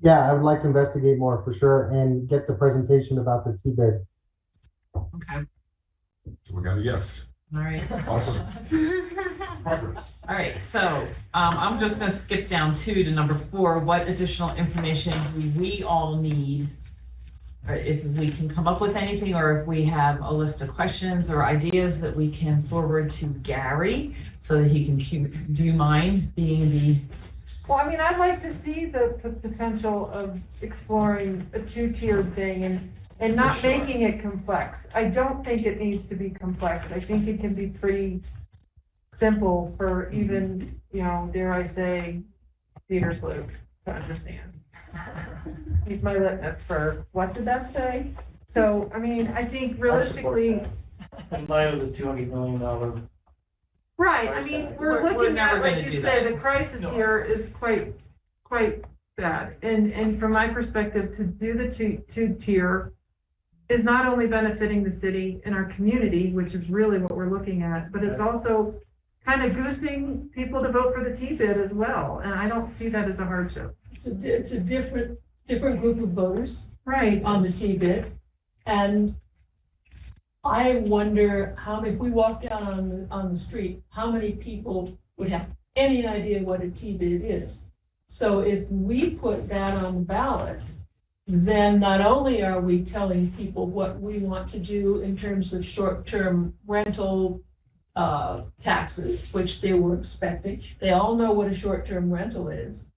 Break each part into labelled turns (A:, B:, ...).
A: Yeah, I would like to investigate more for sure and get the presentation about the T-bid.
B: Okay,
C: So we got a yes.
B: all right.
C: Awesome. Progress.
B: All right, so um, I'm just gonna skip down two to number four. What additional information do we all need? Or if we can come up with anything, or if we have a list of questions or ideas that we can forward to Gary so that he can, cu- do you mind being the,
D: Well, I mean, I'd like to see the p- potential of exploring a two-tiered thing and, and not
B: For sure.
D: making it complex. I don't think it needs to be complex. I think it can be pretty simple for
B: Mm-hmm.
D: even, you know, dare I say, Peter's Luke to understand. He's my litmus for, what did that say? So, I mean, I think realistically,
E: In light of the two hundred million dollar,
D: Right, I
E: Price
D: mean,
E: tag.
D: we're
B: We're- we're
D: looking
B: never
D: at,
B: gonna
D: like
B: do
D: you say,
B: that.
D: the crisis
E: No.
D: here is quite, quite bad. And, and from my perspective, to do the two, two-tier is not only benefiting the city and our community, which is really what we're looking at, but it's also kind of goosing people to vote for the T-bid as well. And I don't see that as a hardship.
F: It's a, it's a different, different group of voters
D: Right.
F: on the T-bid. And I wonder how, if we walk down on, the on the street, how many people would have any idea what a T-bid is? So if we put that on the ballot, then not only are we telling people what we want to do in terms of short-term rental uh, taxes, which they were expecting, they all know what a short-term rental is.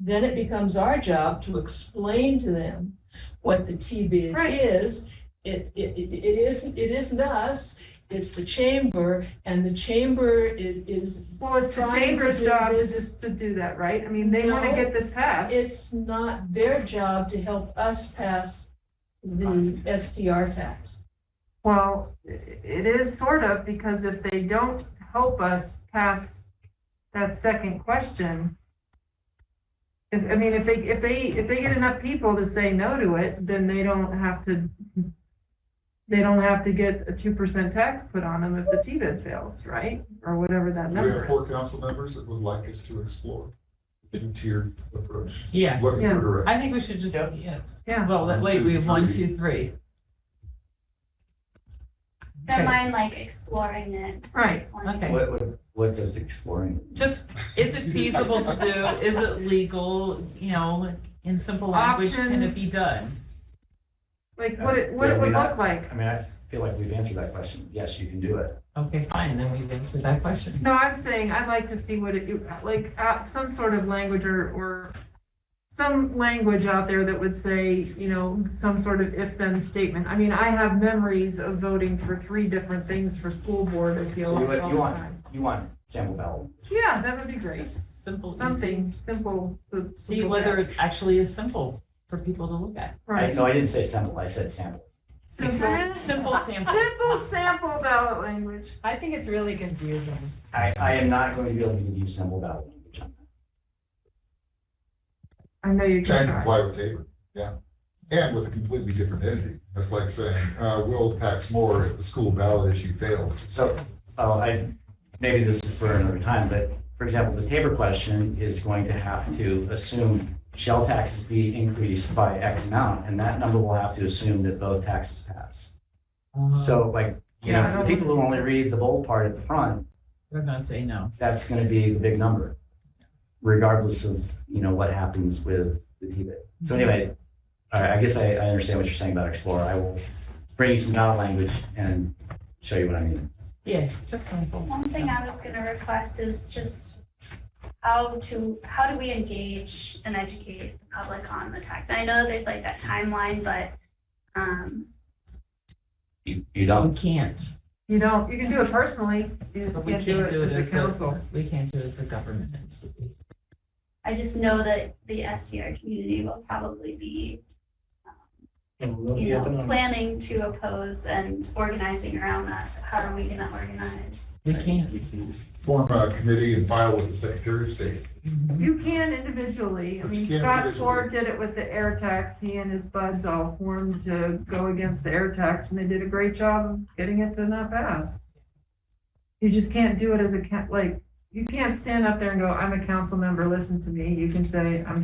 F: Then it becomes our job to explain to them what the T-bid
D: Right.
F: is. It, it, it it isn't, it isn't us, it's the chamber, and the chamber i- is,
D: Well, it's the
F: Trying to
D: chamber's
F: do
D: job
F: this-
D: is to do that, right? I mean, they want to
F: No.
D: get this passed.
F: it's not their job to help us pass the STR tax.
D: Well, i- it is sort of, because if they don't help us pass that second question, if, I mean, if they, if they, if they get enough people to say no to it, then they don't have to, they don't have to get a two percent tax put on them if the T-bid fails, right? Or whatever that
C: We have
D: number
C: four
D: is.
C: council members that would like us to explore the two-tiered approach.
B: yeah,
C: Looking
D: Yeah.
C: for direction.
B: I think we should just,
E: Yep.
B: yeah,
D: Yeah.
B: well, that- wait, we have one, two, three.
G: Don't
B: Okay.
G: mind like exploring it.
D: Right.
G: Exploring it.
B: Okay.
H: What, what, what does exploring?
B: Just, is it feasible to do? Is it legal? You know, in simple language, can it be
D: Options.
B: done?
D: Like, what it, what it would look like.
H: I mean, I feel like we've answered that question. Yes, you can do it.
B: Okay, fine, then we've answered that question.
D: No, I'm saying I'd like to see what it, like, uh, some sort of language or, or some language out there that would say, you know, some sort of if-then statement. I mean, I have memories of voting for three different things for school board, I feel
H: So
D: like
H: you want,
D: all
H: you
D: the
H: want,
D: time.
H: you want sample ballot.
D: Yeah, that would be great.
B: Just simple, something.
D: Something simple. to
B: See
D: look
B: whether
D: at.
B: it actually is simple for people to look at.
H: I,
D: Right.
H: no, I didn't say sample, I said sample.
D: Simple,
B: Simple sample.
D: simple sample ballot language.
I: I think it's really confusing.
H: I, I am not going to be able to give you sample ballot. language on that.
D: I know you
C: Trying
D: can.
C: to
D: try.
C: comply with Tabor, yeah. And with a completely different entity. That's like saying, uh, we'll tax more if the school ballot issue fails.
H: So, oh, I, maybe this is for another time, but for example, the Tabor question is going to have to assume shell taxes be increased by X amount, and that number will have to assume that both taxes pass.
B: Uh,
H: So like, you
D: Yeah, I
H: know, for
D: don't-
H: the people who only read the bold part at the front,
B: They're gonna say no.
H: that's going to be the big number, regardless of, you know, what happens with the T-bit. So anyway, I, I guess I, I understand what you're saying about Explorer. I will bring you some knowledge language and show you what I mean.
B: Yeah, just simple.
G: One thing I was gonna request is just how to, how do we engage and educate the public on the tax? I know there's like that timeline, but, um,
H: You, you
B: We can't,
D: You don't, you can do it personally. You
B: but
D: just
B: we
D: can't do it as a council.
B: we can't do it as a government. entity.
G: I just know that the SDR community will probably be,
E: and they'll
G: you
E: be up and
G: know,
E: on.
G: planning to oppose and organizing around us. How are we gonna organize?
B: We can't.
C: Form a committee and file with the Secretary of State.
B: Mhm.
D: You can individually. I
C: But
D: mean,
C: you can't
D: Scott
C: individually.
D: Ford did it with the air tax. He and his buds all formed to go against the air tax and they did a great job of getting it to not pass. You just can't do it as a, ca- like, you can't stand up there and go, I'm a council member, listen to me. You can say, I'm